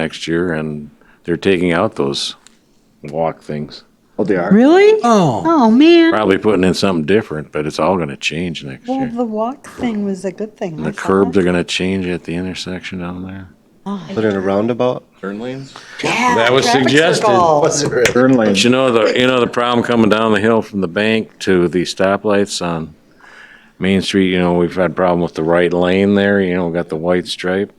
next year, and they're taking out those walk things. Oh, they are? Really? Oh, Oh, man. Probably putting in something different, but it's all gonna change next Well, year. the walk thing was a good thing. And the I saw curbs that. are gonna change at the intersection down there. Put in a roundabout? Turn lanes? Yeah, That was traffic suggested. circle. Turn lanes. But you know the you know the problem coming down the hill from the bank to the stoplights on Main Street. You know we've had problem with the right lane there. You know we got the white stripe.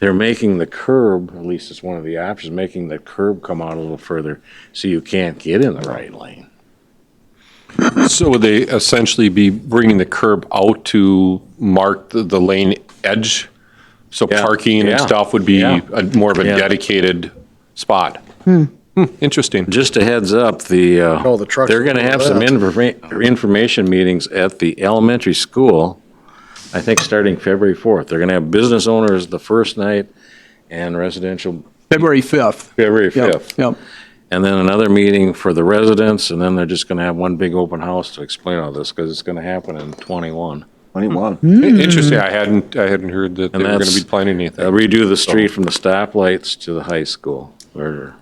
They're making the curb. At least it's one of the options. Making the curb come out a little further so you can't get in the right lane. So would they essentially be bringing the curb out to mark the, the lane edge? So Yeah. parking and Yeah. stuff would be Yeah. a- more of a Yeah. dedicated spot? Hmm, Interesting. Just a heads up, the uh, Oh, the trucks they're going to will go have some left. informa- information meetings at the elementary school. I think starting February fourth, they're going to have business owners the first night and residential February 5th. February Yep, fifth. yep. and then another meeting for the residents, and then they're just gonna have one big open house to explain all this, because it's gonna happen in twenty-one. Twenty-one. I- Interesting. I hadn't, I hadn't heard that they And were going that's- to be planning They'll anything. redo the street from the stoplights to the high school, or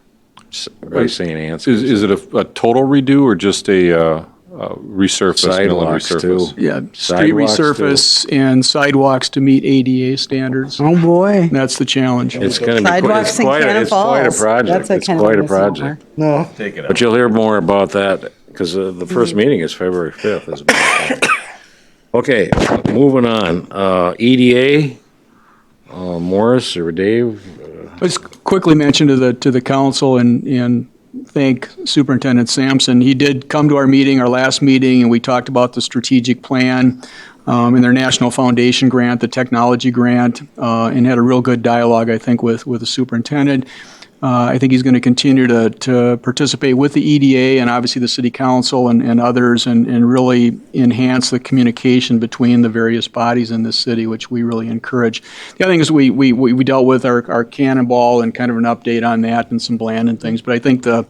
s- by St. Anne's. Is, is it a, a total redo or just a, uh, uh, resurface? mill and Sidewalks, too. resurface? Yeah, street Sidewalks, too. resurface and sidewalks to meet ADA standards. Oh, boy. And That's the challenge. It's gonna be, quite- it's Sidewalks in quite, a- Cannon it's quite a Falls. project, That's it's kind of quite a misnomer. project. No. But you'll hear more about that, because the first meeting is February fifth, as a matter of fact. Okay, moving on, uh, EDA, uh, Morris or Dave, Let's quickly mention to the, to the council and, and thank Superintendent Sampson. He did come to our meeting, our last meeting, and we talked about the strategic plan um, and their National Foundation grant, the technology grant, uh, and had a real good dialogue, I think, with, with the superintendent. Uh, I think he's going to continue to, to participate with the EDA and obviously the city council and, and others and, and really enhance the communication between the various bodies in this city, which we really encourage. The other thing is we, we, we we dealt with our, our cannonball and kind of an update on that and some bland and things. But I think the,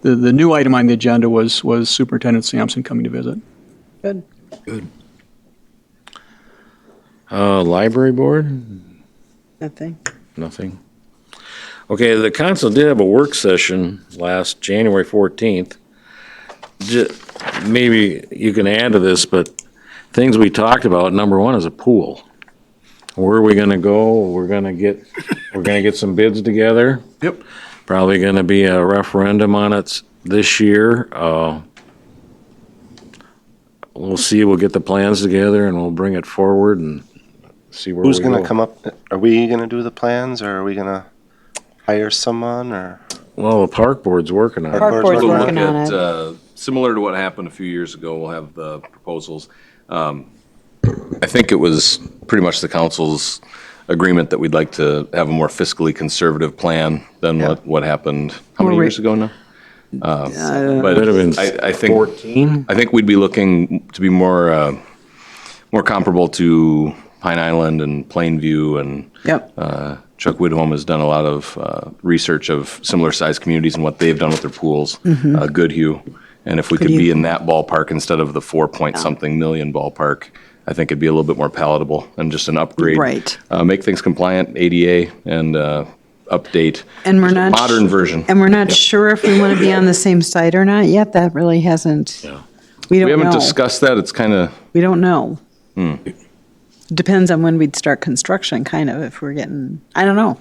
the, the new item on the agenda was, was Superintendent Sampson coming to visit. Good. uh, Library Board? Nothing. Nothing. Okay, the council did have a work session last January 14th. Ju- Maybe you can add to this, but things we talked about, number one is a pool. Where are we gonna go? We're gonna get, we're gonna get some bids together. Yep. Probably gonna be a referendum on it this year. Uh, We'll see, we'll get the plans together and we'll bring it forward and see where we go. Who's gonna come up, are we gonna do the plans, or are we gonna hire someone, or? Well, the park board's working on it. Park board's We'll look working on at, it. uh, Similar to what happened a few years ago, we'll have the proposals. Um, I think it was pretty much the council's agreement that we'd like to have a more fiscally conservative plan than what, what happened, how many We're- years ago now? Um, But Would have been I, I think, 14? I think we'd be looking to be more, uh, more comparable to Pine Island and Plainview and Yep. uh, Chuck Widholm has done a lot of uh, research of similar-sized communities and what they've done with their pools. Mm-hmm. Uh, Goodhue, and if we could be in that ballpark instead of the four-point-something million ballpark, I think it'd be a little bit more palatable and just an upgrade. Right. Uh, Make things compliant, ADA, and uh, update. And we're Just a not sh- Modern version. And we're not sure if we want to be on the same site or not yet. That really hasn't. We We don't haven't know. discussed that, it's kind of, We don't know. Depends on when we'd start construction, kind of, if we're getting, I don't know.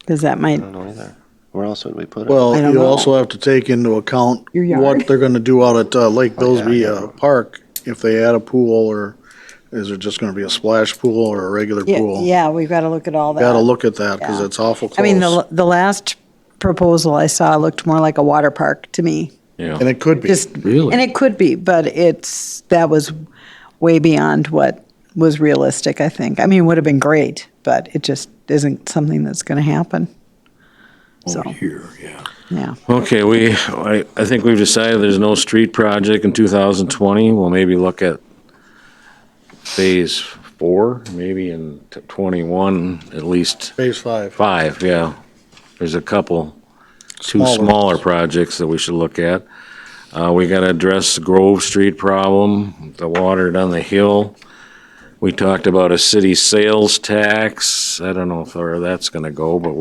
Because that might, I don't know either. Where else would we put it? Well, I don't you know. also have to take into account Your yard. what they're gonna do out at uh, Lake Billsby uh, Park, if they add a pool, or is it just gonna be a splash pool or a regular yeah, pool? yeah, we've got to look at all that. Gotta look at that, cause Yeah. it's awful close. I mean, the, the last proposal I saw looked more like a water park to me. Yeah. And it could be. Just, and it could be, but it's, that was way beyond what was realistic, I think. I mean, it would have been great, but it just isn't something that's going to happen. So, Here, yeah. yeah. Okay, we, I, I think we've decided there's no street project in 2020. We'll maybe look at phase four, maybe in t- 21, at least Phase five. five, yeah. There's a couple, two Smaller smaller ones. projects that we should look at. Uh, we gotta address the Grove Street problem, the water down the hill. We talked about a city sales tax. I don't know if, where that's gonna go, but